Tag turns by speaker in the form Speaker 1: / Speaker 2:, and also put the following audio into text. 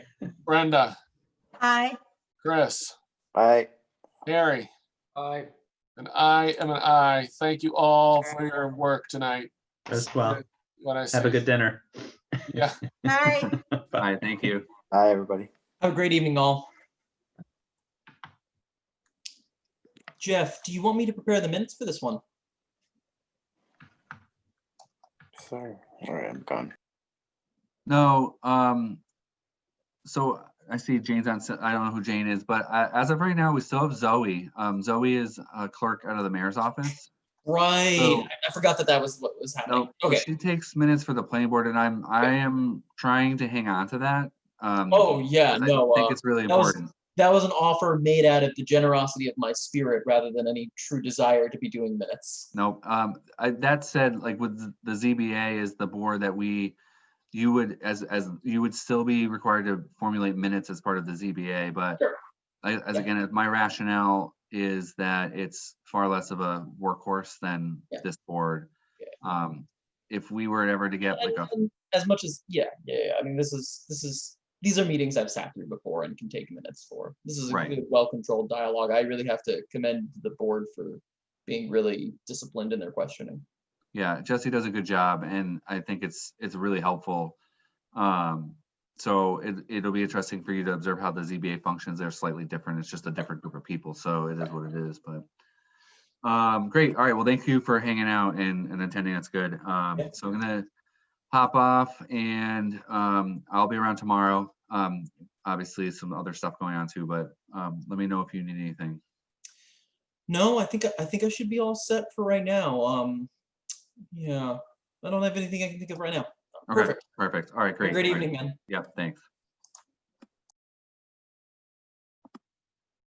Speaker 1: Brenda,
Speaker 2: Aye.
Speaker 1: Chris,
Speaker 3: Aye.
Speaker 1: Harry,
Speaker 4: Aye.
Speaker 1: and I am an I. Thank you all for your work tonight.
Speaker 5: as well.
Speaker 1: What I
Speaker 5: Have a
Speaker 1: say,
Speaker 5: good dinner.
Speaker 2: Aye.
Speaker 5: Bye.
Speaker 6: Hi, thank you.
Speaker 3: Aye, everybody.
Speaker 7: Have a great evening, all. Jeff, do you want me to prepare the minutes for this one?
Speaker 3: Sorry. All right, I'm gone.
Speaker 6: No, um, so I see Jane's on, s- I don't know who Jane is, but uh, as of right now, we still have Zoe. Um, Zoe is a clerk out of the mayor's office.
Speaker 7: Right,
Speaker 6: So-
Speaker 7: I I forgot that that was what was happening.
Speaker 6: Oh. No,
Speaker 7: Okay.
Speaker 6: she takes minutes for the planning board and I'm, I am trying to hang on to that. um,
Speaker 7: Oh, yeah,
Speaker 6: 'cause I
Speaker 7: no,
Speaker 6: Think
Speaker 7: uh,
Speaker 6: it's really
Speaker 7: that was-
Speaker 6: important.
Speaker 7: that was an offer made out of the generosity of my spirit rather than any true desire to be doing minutes.
Speaker 6: No, um, I, that said, like with th- the ZBA is the board that we, you would, as, as, you would still be required to formulate minutes as part of the ZBA, but
Speaker 7: Sure.
Speaker 6: I, as
Speaker 7: Yeah.
Speaker 6: again, as my rationale is that it's far less of a workhorse than
Speaker 7: Yeah.
Speaker 6: this board.
Speaker 7: Yeah.
Speaker 6: Um, if we were ever to get like
Speaker 7: And-
Speaker 6: a,
Speaker 7: and As much as, yeah, yeah, yeah, I mean, this is, this is, these are meetings I've sat through before and can take minutes for. This is a
Speaker 6: Right.
Speaker 7: good, well-controlled dialogue. I really have to commend the board for being really disciplined in their questioning.
Speaker 6: yeah, Jesse does a good job and I think it's, it's really helpful. Um, so it, it'll be interesting for you to observe how the ZBA functions. They're slightly different. It's just a different group of people. So it is what it is, but. Um, great. All right. Well, thank you for hanging out and, and attending. That's good. Um,
Speaker 7: Yeah.
Speaker 6: so I'm gonna hop off and, um, I'll be around tomorrow. Um, obviously some other stuff going on too, but, um, let me know if you need anything.
Speaker 7: No, I think, I think I should be all set for right now. Um, yeah, I don't have anything I can think of right now.
Speaker 6: Okay,
Speaker 7: Perfect.
Speaker 6: perfect. All right,
Speaker 7: Have a
Speaker 6: great.
Speaker 7: Great
Speaker 6: all right.
Speaker 7: evening, man.
Speaker 6: Yep, thanks.